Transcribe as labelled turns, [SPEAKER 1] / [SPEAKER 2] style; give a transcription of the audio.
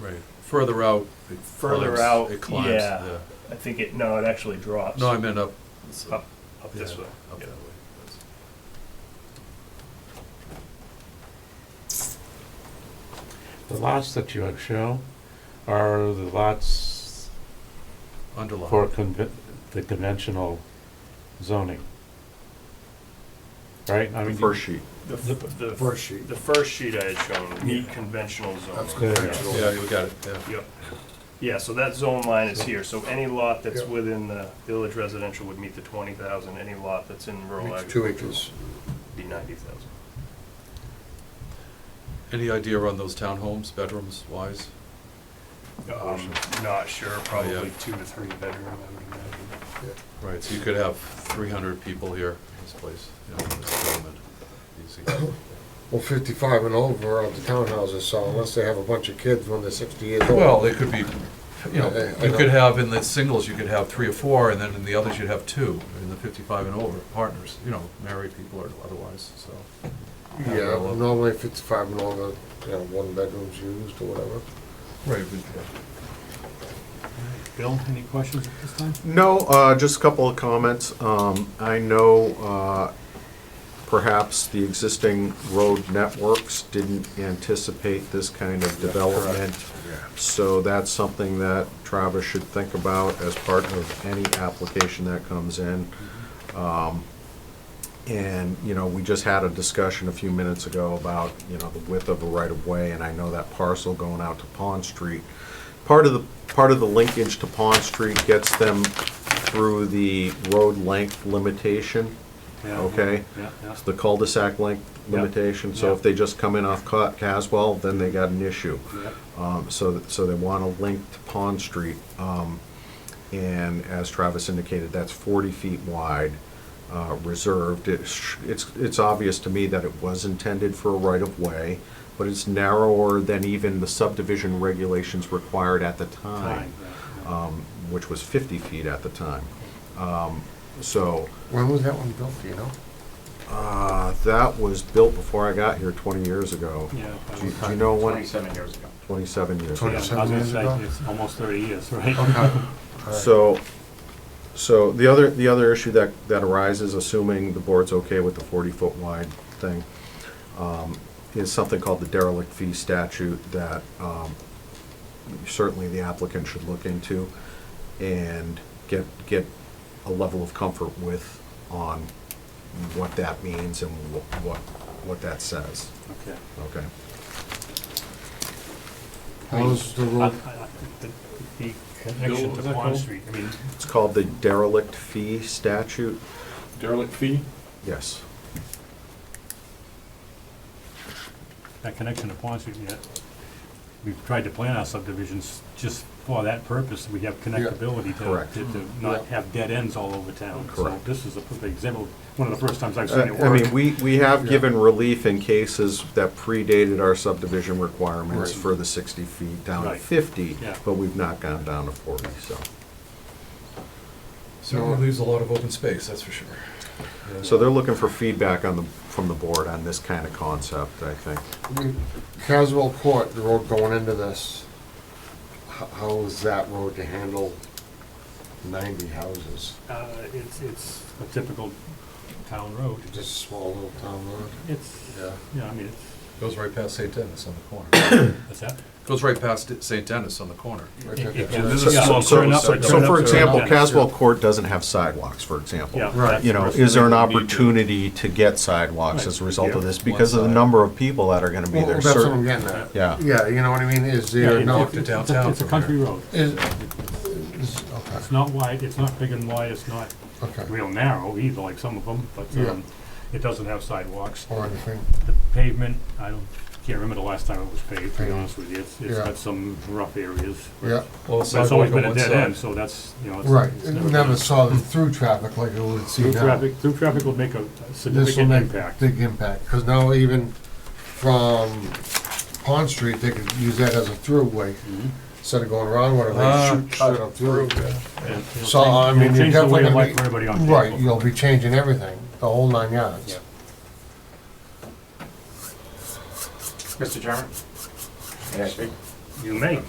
[SPEAKER 1] Right, further out. it
[SPEAKER 2] Further
[SPEAKER 1] climbs-
[SPEAKER 2] out,
[SPEAKER 1] It climbs,
[SPEAKER 2] yeah.
[SPEAKER 1] yeah.
[SPEAKER 2] I think it, no, it actually drops.
[SPEAKER 1] No, I meant up.
[SPEAKER 2] Up, up this
[SPEAKER 1] Yeah,
[SPEAKER 2] way.
[SPEAKER 1] Up
[SPEAKER 2] Yeah.
[SPEAKER 1] that way.
[SPEAKER 3] The lots that you show are the lots for
[SPEAKER 1] Underline.
[SPEAKER 3] conve- the conventional zoning. Right? I
[SPEAKER 4] The
[SPEAKER 3] mean,
[SPEAKER 4] first sheet.
[SPEAKER 2] The, f- the. First sheet. The first sheet I had shown, meet conventional zoning.
[SPEAKER 3] good.
[SPEAKER 1] Yeah, you got it, yeah.
[SPEAKER 2] Yep. Yeah, so that zone line is here, so any lot that's
[SPEAKER 5] Yeah.
[SPEAKER 2] within the village residential would meet the twenty thousand, any lot that's in rural
[SPEAKER 5] It's two
[SPEAKER 2] agriculture
[SPEAKER 5] acres.
[SPEAKER 2] would be ninety thousand.
[SPEAKER 1] Any idea on those townhomes, bedrooms wise?
[SPEAKER 2] Um, not sure, probably
[SPEAKER 1] yeah.
[SPEAKER 2] two to three bedroom, I would imagine.
[SPEAKER 1] Right, so you could have three hundred people here in this place, you know, in this development, easy.
[SPEAKER 5] Well, fifty-five and over are the townhouses, so unless they have a bunch of kids when they're sixty years old.
[SPEAKER 1] Well, they could be, you
[SPEAKER 5] I- I
[SPEAKER 1] know, you
[SPEAKER 5] know.
[SPEAKER 1] could have in the singles, you could have three or four, and then in the others, you'd have two, in the fifty-five and over, partners, you know, married people or otherwise, so.
[SPEAKER 5] Yeah, normally fifty-five and over, you know, one bedroom's used or whatever.
[SPEAKER 1] Right.
[SPEAKER 6] Bill, any questions at this time?
[SPEAKER 4] No, uh, just a couple of comments. Um, I know, uh, perhaps the existing road networks didn't anticipate this kind of development. So that's something that Travis should think about as part of any application that comes in. Um, And, you know, we just had a discussion a few minutes ago about, you know, the width of a right-of-way, and I know that parcel going out to Pond Street. Part of the, part of the linkage to Pond Street gets them through the road length limitation,
[SPEAKER 6] Yeah.
[SPEAKER 4] okay?
[SPEAKER 6] Yeah, yeah.
[SPEAKER 4] The cul-de-sac length
[SPEAKER 6] Yeah.
[SPEAKER 4] limitation, so if
[SPEAKER 6] Yeah.
[SPEAKER 4] they just come in off Ca- Caswell, then they got an issue.
[SPEAKER 6] Yeah.
[SPEAKER 4] Um, So, th- so they want a link to Pond Street. um, And as Travis indicated, that's 40 feet wide, uh, reserved. It sh- It's, it's obvious to me that it was intended for a right-of-way, but it's narrower than even the subdivision regulations required at the time,
[SPEAKER 6] Fine.
[SPEAKER 4] um, which was 50 feet at the time. Um, So
[SPEAKER 5] When was that one built, do you know?
[SPEAKER 4] uh, that was built before I got here 20 years ago.
[SPEAKER 6] Yeah.
[SPEAKER 4] Do you- do you know when?
[SPEAKER 7] Twenty-seven years ago.
[SPEAKER 4] 27 years ago.
[SPEAKER 6] Yeah, I was
[SPEAKER 5] 27
[SPEAKER 6] gonna
[SPEAKER 5] years ago?
[SPEAKER 6] say, it's almost thirty years, right?
[SPEAKER 5] Okay.
[SPEAKER 4] So, so the other, the other issue that, that arises, assuming the board's okay with the forty-foot wide thing, um, is something called the derelict fee statute that um, certainly the applicant should look into and get, get a level of comfort with on what that means and wh- what, what that says,
[SPEAKER 6] Okay.
[SPEAKER 4] okay?
[SPEAKER 5] How's the
[SPEAKER 6] I- I-
[SPEAKER 5] road,
[SPEAKER 6] I- The the connection to Pond Street, I mean,
[SPEAKER 4] It's called the derelict fee statute,
[SPEAKER 6] derelict fee,
[SPEAKER 4] yes.
[SPEAKER 6] that connection to Pond Street, yeah. We've tried to plan our subdivisions just for that purpose, we have connectability
[SPEAKER 4] Correct.
[SPEAKER 6] to- to, to not
[SPEAKER 5] Yeah.
[SPEAKER 6] have dead ends all over town.
[SPEAKER 4] Correct.
[SPEAKER 6] So this is a perfect example, one of the first times I've seen
[SPEAKER 4] I
[SPEAKER 6] it
[SPEAKER 4] Uh, I
[SPEAKER 6] work.
[SPEAKER 4] mean, we, we have
[SPEAKER 5] Yeah.
[SPEAKER 4] given relief in cases that predated our subdivision requirements
[SPEAKER 6] Right.
[SPEAKER 4] for the sixty feet down to
[SPEAKER 6] Right.
[SPEAKER 4] fifty,
[SPEAKER 6] Yeah.
[SPEAKER 4] but we've not gone down to forty, so.
[SPEAKER 1] So it leaves a lot of open space, that's for sure.
[SPEAKER 4] So they're looking for feedback on the, from the board on this kind of concept, I think.
[SPEAKER 5] I mean, Caswell Court, the road going into this, h- how is that road to handle ninety houses?
[SPEAKER 6] Uh, it's, it's a typical town road.
[SPEAKER 5] Just a small little town road?
[SPEAKER 6] It's,
[SPEAKER 5] Yeah.
[SPEAKER 6] yeah, I mean, it's,
[SPEAKER 1] Goes right past St. Dennis on the corner.
[SPEAKER 6] that's that.
[SPEAKER 1] Goes right past St. Dennis on the corner.
[SPEAKER 5] Right there.
[SPEAKER 6] Yeah, this
[SPEAKER 4] So-
[SPEAKER 6] is a small
[SPEAKER 4] so-
[SPEAKER 6] turn up,
[SPEAKER 4] so-
[SPEAKER 6] a
[SPEAKER 4] So
[SPEAKER 6] turn up,
[SPEAKER 4] for
[SPEAKER 6] turn
[SPEAKER 4] example,
[SPEAKER 6] down.
[SPEAKER 4] Caswell Court doesn't have sidewalks, for example.
[SPEAKER 6] Yeah.
[SPEAKER 1] Right.
[SPEAKER 6] that's
[SPEAKER 4] You know,
[SPEAKER 6] the
[SPEAKER 4] is there an
[SPEAKER 6] first thing we need to-
[SPEAKER 4] opportunity to get sidewalks as a result of this because of the number of people that are gonna be
[SPEAKER 5] Well,
[SPEAKER 4] there?
[SPEAKER 5] that's what I'm
[SPEAKER 4] Cer-
[SPEAKER 5] getting at.
[SPEAKER 4] Yeah.
[SPEAKER 5] Yeah, you know what I mean, is
[SPEAKER 6] Yeah,
[SPEAKER 5] there,
[SPEAKER 6] it-
[SPEAKER 5] no,
[SPEAKER 6] it-
[SPEAKER 1] to
[SPEAKER 6] it's a-
[SPEAKER 1] downtown
[SPEAKER 6] It's a
[SPEAKER 1] from
[SPEAKER 6] country road.
[SPEAKER 5] is, is, okay,
[SPEAKER 6] It's not wide, it's not big and wide, it's not
[SPEAKER 5] okay,
[SPEAKER 6] real narrow either, like some of them, but,
[SPEAKER 5] Yeah.
[SPEAKER 6] um, it doesn't have sidewalks.
[SPEAKER 5] or anything.
[SPEAKER 6] The pavement, I don't, can't remember the last time it was paved, to be
[SPEAKER 5] Yeah.
[SPEAKER 6] honest with you. It's, it's
[SPEAKER 5] Yeah.
[SPEAKER 6] got some rough areas.
[SPEAKER 5] Yeah,
[SPEAKER 1] Well,
[SPEAKER 6] But it's always been a dead end, so that's, you know. it's-
[SPEAKER 5] right,
[SPEAKER 6] it's
[SPEAKER 5] It
[SPEAKER 6] been-
[SPEAKER 5] never saw the through traffic like it would see
[SPEAKER 6] Through
[SPEAKER 5] now.
[SPEAKER 6] traffic, through traffic will make a
[SPEAKER 5] This will
[SPEAKER 6] significant
[SPEAKER 5] make
[SPEAKER 6] impact.
[SPEAKER 5] big impact, because now even from Pond Street, they could use that as a throughway,
[SPEAKER 6] Mhm.
[SPEAKER 5] instead of going around, whatever,
[SPEAKER 1] Ah,
[SPEAKER 5] they shoot,
[SPEAKER 1] cut
[SPEAKER 5] shit up through.
[SPEAKER 6] And it'll
[SPEAKER 5] So,
[SPEAKER 6] change-
[SPEAKER 5] I
[SPEAKER 6] it'll
[SPEAKER 5] mean, you're
[SPEAKER 6] Change the way
[SPEAKER 5] definitely
[SPEAKER 6] of
[SPEAKER 5] gonna
[SPEAKER 6] life
[SPEAKER 5] be-
[SPEAKER 6] for everybody on Cape.
[SPEAKER 5] Right, you'll be changing everything, the whole nine yards.
[SPEAKER 7] Mr. Chairman? May I speak?
[SPEAKER 6] You may.